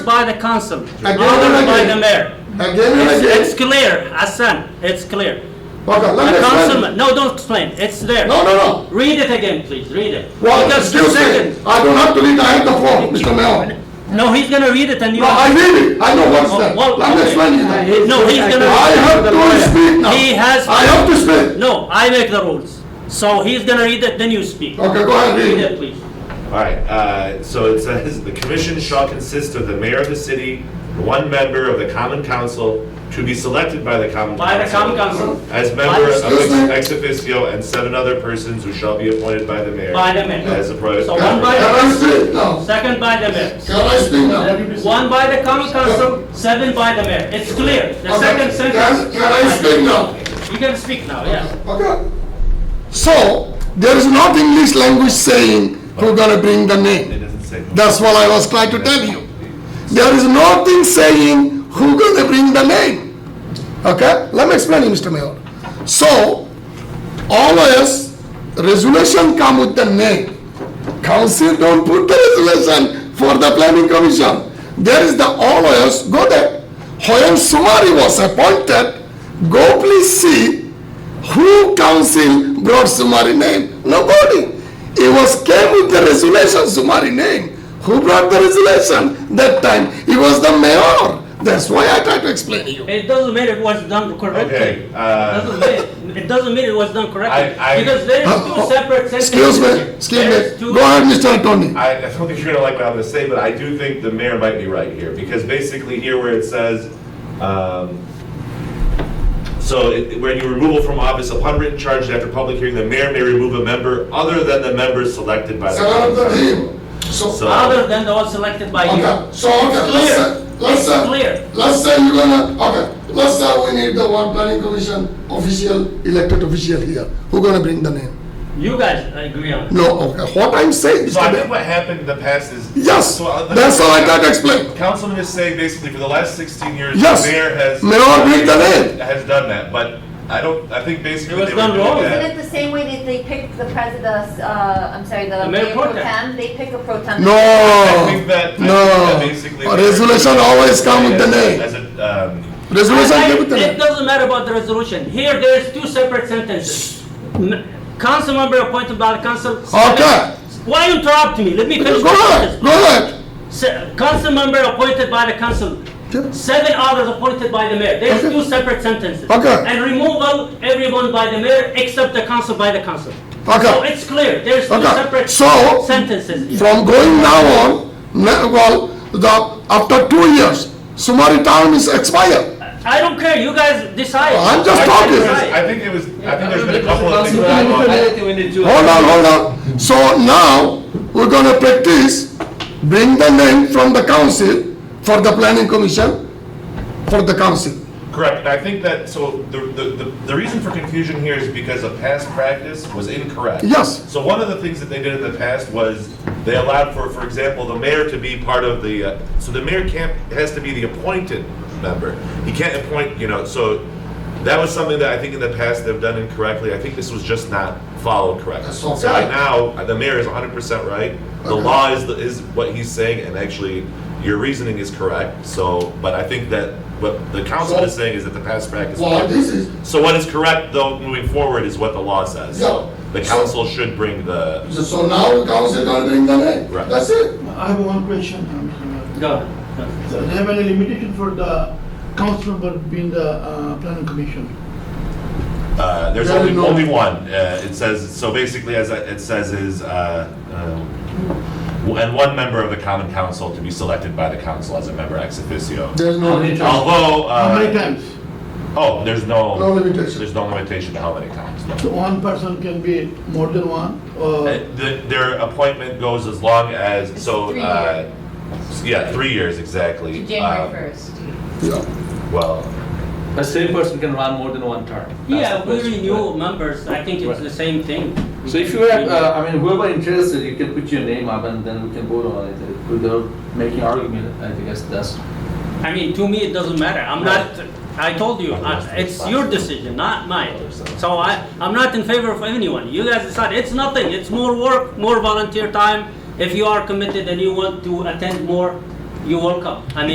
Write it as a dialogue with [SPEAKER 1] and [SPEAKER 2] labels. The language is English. [SPEAKER 1] by the council,
[SPEAKER 2] Again and
[SPEAKER 1] ordered by the
[SPEAKER 2] again.
[SPEAKER 1] mayor.
[SPEAKER 2] Again and
[SPEAKER 1] It's,
[SPEAKER 2] again.
[SPEAKER 1] it's clear, Hassan, it's clear.
[SPEAKER 2] Okay, let me
[SPEAKER 1] The
[SPEAKER 2] explain.
[SPEAKER 1] councilman, no, don't explain, it's there.
[SPEAKER 2] No, no, no.
[SPEAKER 1] Read it again, please, read it.
[SPEAKER 2] Well,
[SPEAKER 1] Because the
[SPEAKER 2] excuse
[SPEAKER 1] second-
[SPEAKER 2] me, I don't have to read, I have the phone, Mr. Mayor.
[SPEAKER 1] No, he's gonna read it and you.
[SPEAKER 2] No, I read it, I know what's
[SPEAKER 1] Oh,
[SPEAKER 2] there.
[SPEAKER 1] well,
[SPEAKER 2] Let me
[SPEAKER 1] okay. Uh,
[SPEAKER 2] explain you that.
[SPEAKER 1] No, he's gonna.
[SPEAKER 2] I have to speak now.
[SPEAKER 1] He has-
[SPEAKER 2] I have to speak.
[SPEAKER 1] No, I make the rules. So he's gonna read it, then you speak.
[SPEAKER 2] Okay, go ahead,
[SPEAKER 1] Read
[SPEAKER 2] read
[SPEAKER 1] it,
[SPEAKER 2] it.
[SPEAKER 1] please.
[SPEAKER 3] All right, uh, so it says, "The commission shall consist of the mayor of the city, one member of the common council, to be selected by the common council."
[SPEAKER 1] By the common council,
[SPEAKER 3] As member of
[SPEAKER 2] Excuse me?
[SPEAKER 3] ex ex officio and seven other persons who shall be appointed by the mayor.
[SPEAKER 1] By the mayor.
[SPEAKER 3] As a pro.
[SPEAKER 1] So
[SPEAKER 2] Can
[SPEAKER 1] one by-
[SPEAKER 2] can I speak now?
[SPEAKER 1] second by the mayor.
[SPEAKER 2] Can I speak now?
[SPEAKER 1] One by the common council, seven by the mayor. It's clear. The
[SPEAKER 2] Okay,
[SPEAKER 1] second
[SPEAKER 2] Can,
[SPEAKER 1] sentence.
[SPEAKER 2] can I speak now?
[SPEAKER 1] You can speak now, yeah.
[SPEAKER 2] Okay. So, there is not English language saying who gonna bring the
[SPEAKER 3] It
[SPEAKER 2] name.
[SPEAKER 3] doesn't say.
[SPEAKER 2] That's what I was trying to tell you. There is nothing saying who gonna bring the name. Okay, let me explain you, Mr. Mayor. So, always resolution come with the name. Council don't put the resolution for the planning commission. There is the always, go there. Hoyam Sumari was appointed, go please see who council brought Sumari name? Nobody. It was came with the resolution, Sumari name. Who brought the resolution? That time, it was the mayor. That's why I try to explain to you.
[SPEAKER 1] It doesn't mean it was done
[SPEAKER 3] Okay,
[SPEAKER 1] correctly.
[SPEAKER 3] uh,
[SPEAKER 1] Doesn't mean, it doesn't mean it was done correctly.
[SPEAKER 3] I- I-
[SPEAKER 1] Because there is two separate sentences.
[SPEAKER 2] Uh, oh, Excuse me,
[SPEAKER 1] There is
[SPEAKER 2] excuse me.
[SPEAKER 1] two-
[SPEAKER 2] Go ahead, Mr. Attorney.
[SPEAKER 3] I, I don't think you're gonna like what I'm gonna say, but I do think the mayor might be right here, because basically here where it says, um, so it- when you removal from office upon written charge after public hearing, the mayor may remove a member other than the member selected by the council.
[SPEAKER 2] So,
[SPEAKER 3] So-
[SPEAKER 1] Other than the one selected by you.
[SPEAKER 2] okay, so, okay,
[SPEAKER 1] It's
[SPEAKER 2] let's
[SPEAKER 1] clear.
[SPEAKER 2] say, let's
[SPEAKER 1] It's clear.
[SPEAKER 2] say, let's say you're gonna, okay, let's say we need the one planning commission official, elected official here. Who gonna bring the name?
[SPEAKER 1] You guys agree on it.
[SPEAKER 2] No, okay, what I'm saying,
[SPEAKER 3] So I
[SPEAKER 2] Mr.
[SPEAKER 3] think
[SPEAKER 2] Mayor.
[SPEAKER 3] what happened in the past is.
[SPEAKER 2] Yes,
[SPEAKER 3] So, uh,
[SPEAKER 2] that's all I got to explain.
[SPEAKER 3] Councilman is saying basically for the last 16 years, the
[SPEAKER 2] Yes.
[SPEAKER 3] mayor has.
[SPEAKER 2] Mayor bring the name.
[SPEAKER 3] Has done that, but I don't, I think basically.
[SPEAKER 1] It was
[SPEAKER 3] they were
[SPEAKER 1] done
[SPEAKER 3] doing
[SPEAKER 1] wrong.
[SPEAKER 3] that-
[SPEAKER 4] Isn't it the same way that they pick the president, uh, I'm sorry, the
[SPEAKER 1] The mayor
[SPEAKER 4] mayor pro
[SPEAKER 1] pro tem.
[SPEAKER 4] tem? They pick a pro tem.
[SPEAKER 2] No,
[SPEAKER 3] I think that- I think that basically-
[SPEAKER 2] no. Oh, Resolution always come with the
[SPEAKER 3] As
[SPEAKER 2] name.
[SPEAKER 3] a, um,
[SPEAKER 2] Resolution
[SPEAKER 1] I- I-
[SPEAKER 2] come with the
[SPEAKER 1] It
[SPEAKER 2] name.
[SPEAKER 1] doesn't matter about the resolution. Here, there is two separate sentences. N- Council member appointed by the council.
[SPEAKER 2] Okay.
[SPEAKER 1] Why you interrupt me? Let me finish. the
[SPEAKER 2] Go ahead,
[SPEAKER 1] sentence.
[SPEAKER 2] go ahead.
[SPEAKER 1] Se- Council member appointed by the council. Seven others appointed by the mayor. There is
[SPEAKER 2] Okay.
[SPEAKER 1] two separate sentences.
[SPEAKER 2] Okay.
[SPEAKER 1] And removal, everyone by the mayor except the council by the council.
[SPEAKER 2] Okay.
[SPEAKER 1] So it's clear, there is two
[SPEAKER 2] Okay.
[SPEAKER 1] separate
[SPEAKER 2] So-
[SPEAKER 1] sentences.
[SPEAKER 2] From going now on, ne- well, the, after two years, Sumari term is expired.
[SPEAKER 1] I don't care, you guys decide.
[SPEAKER 2] I'm just
[SPEAKER 3] I think
[SPEAKER 2] talking.
[SPEAKER 3] it was- I think it was, I think there's been a couple of things. that went on.
[SPEAKER 2] Hold on, hold on. So now, we're gonna practice, bring the name from the council for the planning commission, for the council.
[SPEAKER 3] Correct, and I think that, so the, the, the- the reason for confusion here is because of past practice was incorrect.
[SPEAKER 2] Yes.
[SPEAKER 3] So one of the things that they did in the past was they allowed for, for example, the mayor to be part of the, uh, so the mayor can't, has to be the appointed member. He can't appoint, you know, so that was something that I think in the past they've done incorrectly. I think this was just not followed correctly.
[SPEAKER 2] That's all.
[SPEAKER 3] So right now, uh, the mayor is hundred percent right. The
[SPEAKER 2] Okay.
[SPEAKER 3] law is, the- is what he's saying, and actually, your reasoning is correct, so, but I think that what the councilman is saying is that the past practice.
[SPEAKER 2] Well, this is-
[SPEAKER 3] So what is correct, though, moving forward is what the law says. So
[SPEAKER 2] Yeah.
[SPEAKER 3] The council should bring the,
[SPEAKER 2] So now the council gonna bring the name.
[SPEAKER 3] Right.
[SPEAKER 2] That's it.
[SPEAKER 5] I have one question. um,
[SPEAKER 1] Go ahead.
[SPEAKER 5] uh, Do they have any limitation for the council member being the uh, planning commission?
[SPEAKER 3] uh, there's
[SPEAKER 2] There
[SPEAKER 3] only,
[SPEAKER 2] is no-
[SPEAKER 3] only one. Uh, It says, so basically, as I- it says is, uh, um, and one member of the common council to be selected by the council as a member ex officio.
[SPEAKER 2] There's no limitation.
[SPEAKER 3] Although,
[SPEAKER 5] How many
[SPEAKER 3] uh,
[SPEAKER 5] times?
[SPEAKER 3] oh, there's no.
[SPEAKER 2] No limitation.
[SPEAKER 3] There's no limitation to how many times, no.
[SPEAKER 5] So uh, one person can be more than one, or
[SPEAKER 3] Uh, the- Their appointment goes as long as, so,
[SPEAKER 6] three
[SPEAKER 3] uh, yeah, three years exactly.
[SPEAKER 6] to
[SPEAKER 3] Um,
[SPEAKER 6] January 1st.
[SPEAKER 2] Yeah.
[SPEAKER 3] Well,
[SPEAKER 7] The same person can run more than one term. That's
[SPEAKER 1] Yeah, we
[SPEAKER 7] the question.
[SPEAKER 1] renew members, I think it's
[SPEAKER 7] Right.
[SPEAKER 1] the same thing.
[SPEAKER 7] So if you have, uh, I mean, whoever interested, you can put your name up and then we can vote on it without making argument, I guess that's.
[SPEAKER 1] I mean, to me, it doesn't matter. I'm not, I told you, I- it's your decision, not mine. So I, I'm not in favor of anyone. You guys decide. It's nothing. It's more work, more volunteer time. If you are committed and you want to attend more, you're welcome. I mean,